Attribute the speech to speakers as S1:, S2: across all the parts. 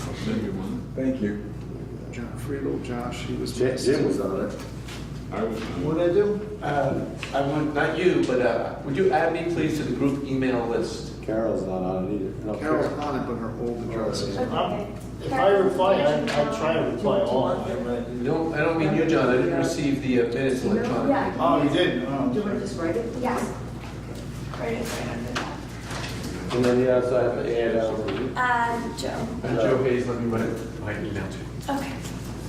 S1: second one.
S2: Thank you.
S3: John Friedel, Josh, he was.
S2: Jim Jim was on it.
S1: I was,
S4: What I do?
S5: Uh, I want, not you, but uh, would you add me please to the group email list?
S2: Carol's not on it either. No,
S3: Carol's on it, but her old address is.
S6: Okay.
S7: If I reply, I, I try to reply all. I'm right.
S5: No, I don't mean you, John, I didn't receive the uh, minutes electronically.
S6: Yeah.
S7: Oh, you didn't? Oh,
S6: Do you
S7: sorry.
S6: want to just write it? Yes. Write it right under that.
S5: And then the outside, the ad
S8: um,
S5: out.
S6: Uh, Joe.
S5: And Joe Hayes, let me write my email too.
S6: Okay.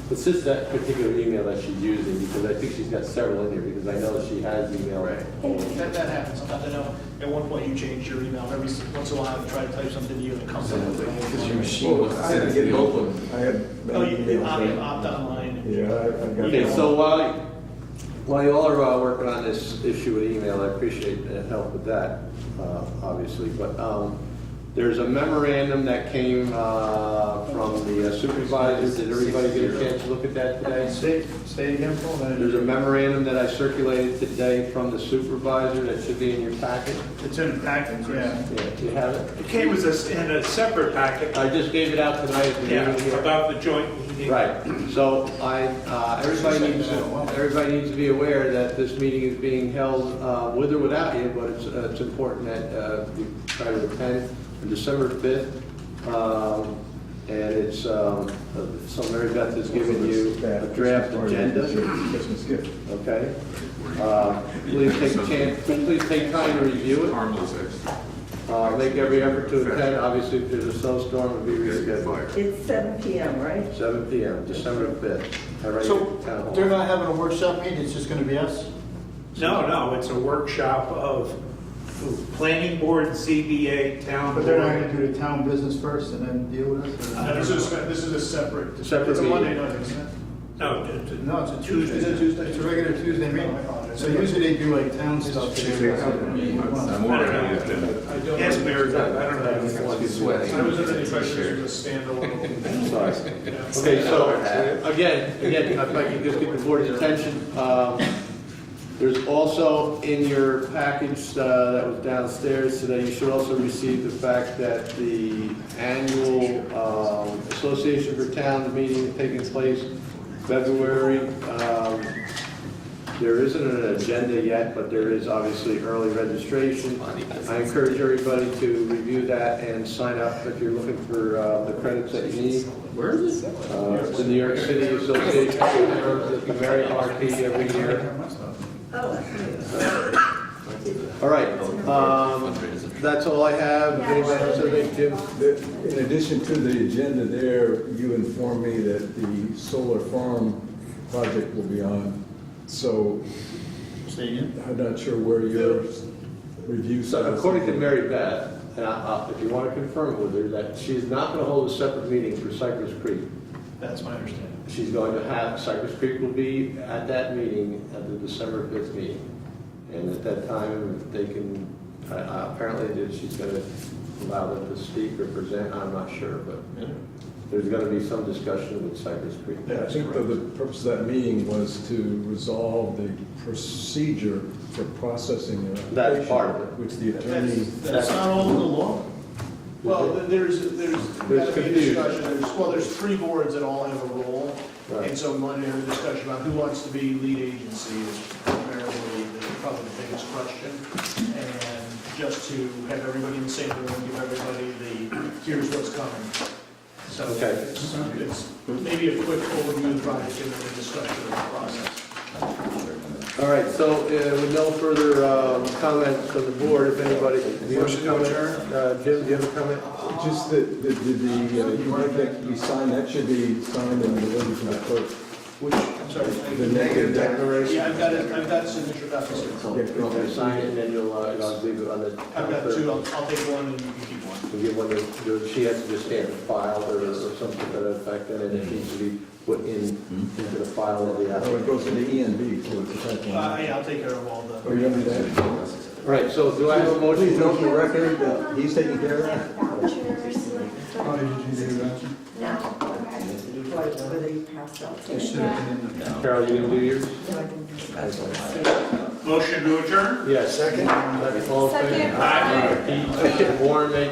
S8: It's just that particular email that she's using, because I think she's got several in here, because I know she has email.
S5: Right.
S7: That, that happens, sometimes I know, at one point you change your email, every, s- once in a while I try to type something to you and it comes
S1: because
S7: up.
S1: your machine
S2: Well,
S1: was
S2: I had to
S1: sent to
S2: get
S1: the
S2: both
S1: old
S2: of
S1: one.
S2: them. I had
S7: Oh,
S2: many
S7: you, you
S2: emails.
S7: opt,
S2: there.
S7: opt online.
S2: Yeah, I- I've got.
S8: Okay, so while, while y'all are uh, working on this issue with email, I appreciate the help with that, uh, obviously, but um, there's a memorandum that came uh, from the supervisors, did everybody get a chance to look at that today?
S7: Say, say again, Paul,
S8: There's a memorandum that I circulated today from the supervisor that should be in your packet.
S7: it's in the packet, yeah.
S8: Yeah, do you have it?
S9: It came as a s in a separate packet,
S8: I just gave it out tonight at the
S9: yeah,
S8: meeting here.
S9: about the joint meeting.
S8: Right, so I, uh, everybody needs, to- everybody needs to be aware that this meeting is being held uh, with or without you, but it's, uh, it's important that uh, you try to attend on December 5th. um, And it's, um, uh, so Mary Beth has given you a draft agenda,
S2: Christmas gift.
S8: okay? Uh, Please take a chance, please take time to review it.
S1: Harmless extra.
S8: Uh, Make every effort to attend, obviously if there's a snowstorm, it'll be
S1: Get
S8: rescheduled.
S1: fired.
S6: It's seven PM, right?
S8: 7 PM, December 5th. All right, town
S7: So,
S8: hall.
S7: they're not having a workshop meeting, it's just gonna be us?
S9: No, no, it's a workshop of planning board, CBA, town
S7: But they're not gonna
S9: board.
S7: do the town business first and then deal with us?
S9: this is-
S7: Uh, this is a separate.
S8: Separate
S7: It's a Monday
S8: meeting.
S7: night, isn't it?
S9: No, d- d-
S7: No, it's a Tuesday.
S9: Tuesday.
S7: It's a regular Tuesday meeting. So usually they do like town stuff.
S1: I'm
S9: I don't
S1: wondering
S9: know.
S1: if the-
S9: Yes, Mary, I don't know.
S8: Everyone's sweating.
S7: under the impression this was a standalone.
S8: Sorry. Okay, so, again, again, if I can just get the board's attention, um, there's also in your package uh, that was downstairs today, you should also receive the fact that the annual um, Association for Towns meeting is taking place February. Um, There isn't an agenda yet, but there is obviously early registration. I encourage everybody to review that and sign up if you're looking for uh, the credits that you need.
S5: Where is it?
S8: Uh, It's the New York City Association of Towns, the Mary RP every year.
S6: Oh, that's
S8: All right, um, that's all I have. Anybody else have anything, Jim?
S2: The- In addition to the agenda there, you informed me that the solar farm project will be on. So
S7: Say again?
S2: I'm not sure where your review.
S8: So according to Mary Beth, and I- I'll- if you want to confirm with her, that she's not going to hold a separate meeting for Cypress Creek.
S7: That's my understanding.
S8: She's going to have, Cypress Creek will be at that meeting, at the December 5th meeting. And at that time, they can, I- I- apparently that she's going to allow them to speak or present, I'm not sure, but there's going to be some discussion with Cypress Creek.
S2: Yeah, I think that the purpose of that meeting was to resolve the procedure for processing an application.
S8: That's part of it.
S2: Which the attorney,
S7: That's, that's not all in the law. Well, th- there's, there's gotta be a
S8: confusion.
S7: discussion, there's, well, there's three boards that all have a role.
S8: Right.
S7: And so we wanted to have a discussion about who wants to be lead agency is primarily the, probably the biggest question. And just to have everybody in the same room, give everybody the, here's what's coming. So
S8: Okay.
S7: it's, it's maybe a quick overview of the project and then a discussion of the process.
S8: All right, so uh, with no further um, comments from the board, if anybody, do you have a comment? Uh, Jim, do you have a comment?
S2: just the, the, the- the, uh, you want that to be signed, that should be signed and delivered to the clerk.
S7: Which, I'm sorry, I-
S2: The negative declaration.
S7: yeah, I've got it, I've got signature copies here.
S8: You want me to sign it and then you'll, uh, you'll leave it on the.
S7: I've got two, I'll, I'll take one and you can keep one.
S8: We give one to- to, she has to just stamp the file or or something to that effect, and then it needs to be put in, into the file of the
S2: Oh,
S8: applicant.
S2: it goes to the ENB, so it's a type one.
S7: Uh, yeah, I'll take care of all the.
S2: Oh, you have that?
S8: All right, so do I have a motion?
S2: Please note for the record that he's taking care of that.
S6: Vouchers, like.
S3: Oh, did you do that?
S6: No, okay. Like, whether you passed out.
S8: Carol, you gonna do yours?
S9: Motion to adjourn?
S8: Yes. Second. All in favor?
S6: Second.
S8: Aye. Warren made